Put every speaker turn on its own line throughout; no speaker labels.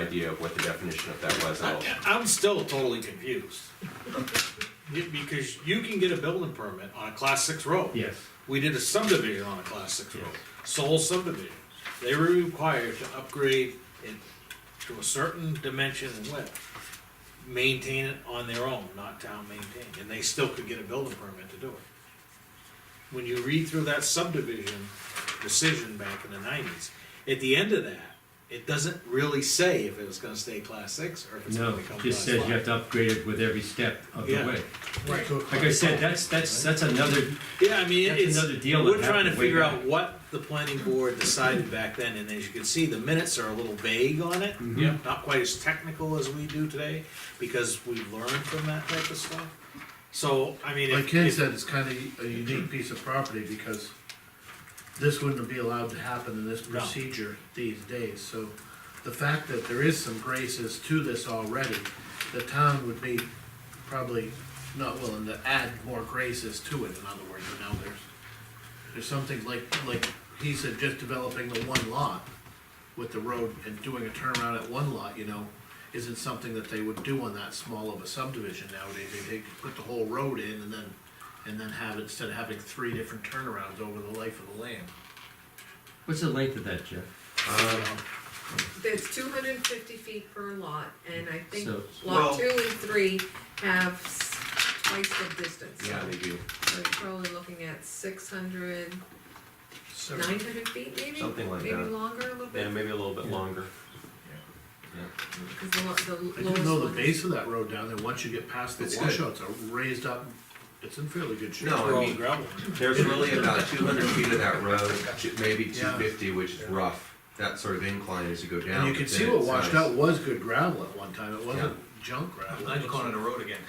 idea of what the definition of that was. and I'll-
I- I'm still totally confused. Be- Because you can get a building permit on a class six road.
Yes.
We did a subdivision on a class six road,
Yes.
sole subdivision. They were required to upgrade it to a certain dimension and width. Maintain it on their own, not town maintained, and they still could get a building permit to do it. When you read through that subdivision decision back in the nineties, at the end of that, it doesn't really say if it was gonna stay class six or if it's gonna
No,
become
it
class
just says
five.
you have to upgrade it with every step of the
Yeah.
way.
Right.
Like I said, that's, that's, that's another,
Yeah, I mean,
That's
it's,
another deal
we're
that
trying to
happened way
figure
back.
out what the planning board decided back then, and as you can see, the minutes are a little vague on it.
Yeah.
Not quite as technical as we do today, because we learned from that type of stuff. So, I mean,
Like
if,
Ken
if,
said, it's kinda a unique piece of property because this wouldn't be allowed to happen in this
No.
procedure these days, so the fact that there is some graces to this already, the town would be probably not willing to add more graces to it, in other words, you know, there's there's something like, like he said, just developing the one lot with the road and doing a turnaround at one lot, you know, isn't something that they would do on that small of a subdivision nowadays. They, they could put the whole road in and then, and then have, it instead of having three different turnarounds over the life of the land.
what's the length of that, Jeff?
It's two hundred and fifty feet per lot, and I think
So-
Well-
lot two and three have s- twice the distance.
Yeah, they do,
So you're probably looking at six hundred, nine hundred feet maybe?
Something like
Maybe
that.
longer, a little
yeah,
bit,
maybe a little bit longer.
because the lo- the lowest
I
one.
do know the
is-
base of that road down there, once you get past the
It's good.
washout, it's a raised up, it's in fairly good shape.
No,
we're
I
all
mean,
gravel.
There's really about two hundred feet of that road, ju- maybe two
Yeah.
fifty, which is rough, that sort of incline as you go down.
And you can
but
see
then
what
it's
washed
nice.
out was good gravel at one time, it wasn't junk gravel.
Glad you called it a road again.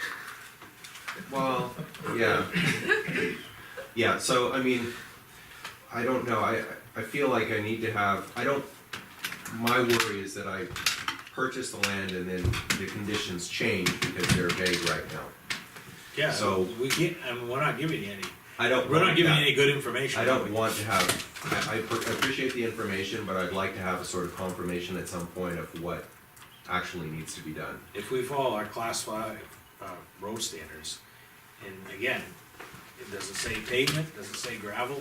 Well, yeah. Yeah, so I mean, I don't know, I, I feel like I need to have, I don't, my worry is that I purchase the land and then the conditions change because they're vague right now.
Yeah,
So-
we can't, I mean, we're not giving you any,
I don't.
we're not
want
giving you
that.
any good information.
I don't
we?
want to have, I, I per- appreciate the information, but I'd like to have a sort of confirmation at some point of what actually needs to be done.
If we follow our class five, uh, road standards, and again, it doesn't say pavement, doesn't say gravel,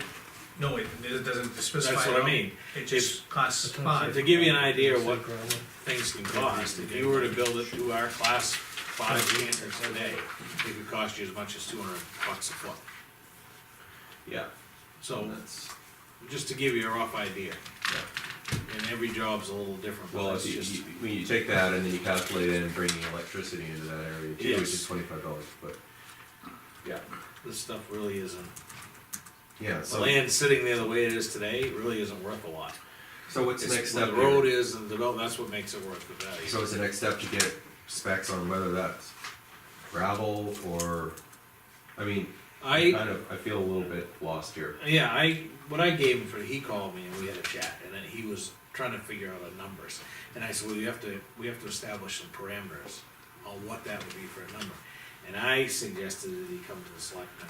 No, it, it doesn't specify.
That's what I
at all.
mean.
It just costs
Uh,
five.
to give you an idea of what things can cost, if you were to build it to our class five standards today, it could cost you as much as two hundred bucks a foot.
Yeah.
So,
That's,
just to give you a rough idea,
yeah.
and every job's a little different,
Well,
but
if
it's
you,
just,
you, when you take that and then you calculate in bringing electricity into that area too, which is
Yes.
twenty-five dollars, but. Yeah.
this stuff really isn't,
Yeah,
the
so,
land sitting there the way it is today, it really isn't worth a lot.
so what's the next
It's- when
step
The road
here?
is, and the develop, that's what makes it worth the value.
So it's the next step to get specs on whether that's gravel or, I mean, I
I,
kind of, I feel a little bit lost here.
Yeah, I what I gave him for he called me and we had a chat, and then he was trying to figure out the numbers, and I said, well, you have to we have to establish some parameters on what that would be for a number, and I suggested that he come to the selectmen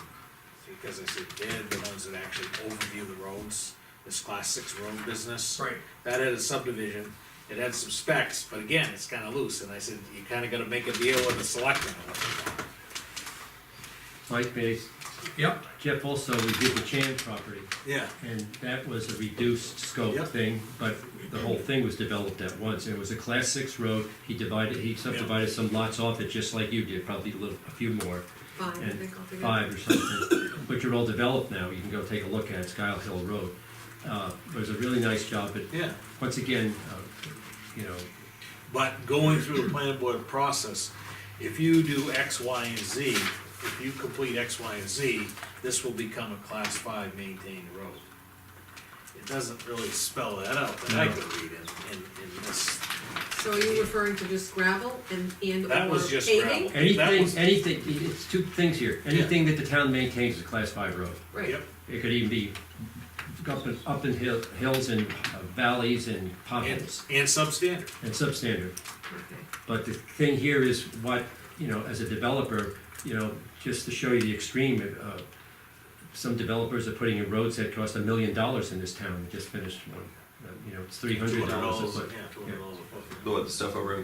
because I said they're the ones that actually overview the roads, this class six road business.
Right,
That had a subdivision. It had some specs, but again, it's kind of loose, and I said you kind of got to make a deal with the selectmen. on what you want."
Mike Base,
yep,
Jeff also, we did the Chan property,
Yeah.
and that was a reduced scope
Yep.
thing, but the whole thing was developed at once. It was a class six road, he divided, he subdivided some lots off it, just like you did, probably a little, a few more.
Five, I
and
think altogether.
five or something, but you're all developed now, you can go take a look at it, Sky Hill Road. Uh, it was a really nice job, but
Yeah.
once again, uh, you know,
But going through the planning board process, if you do X, Y, and Z, if you complete X, Y, and Z, this will become a class five maintained road. It doesn't really spell that out, but I could read in, in, in this.
So are you referring to just gravel and, and or paving?
That was just gravel. That was-
anything, anything, it's two things here, anything that the town maintains is a class five road.
Right,
Yep,
It could even be up in, up in hill- hills and uh, valleys and
and,
potholes
and substandard,
and substandard.
okay.
But the thing here is what, you know, as a developer, you know, just to show you the extreme, uh, some developers are putting in roads that cost a million dollars in this town, we just finished one.
uh, you know, it's three
Two
hundred
hundred
dollars a
dollars,
foot.
yeah, two hundred dollars a foot.
The what, the stuff over in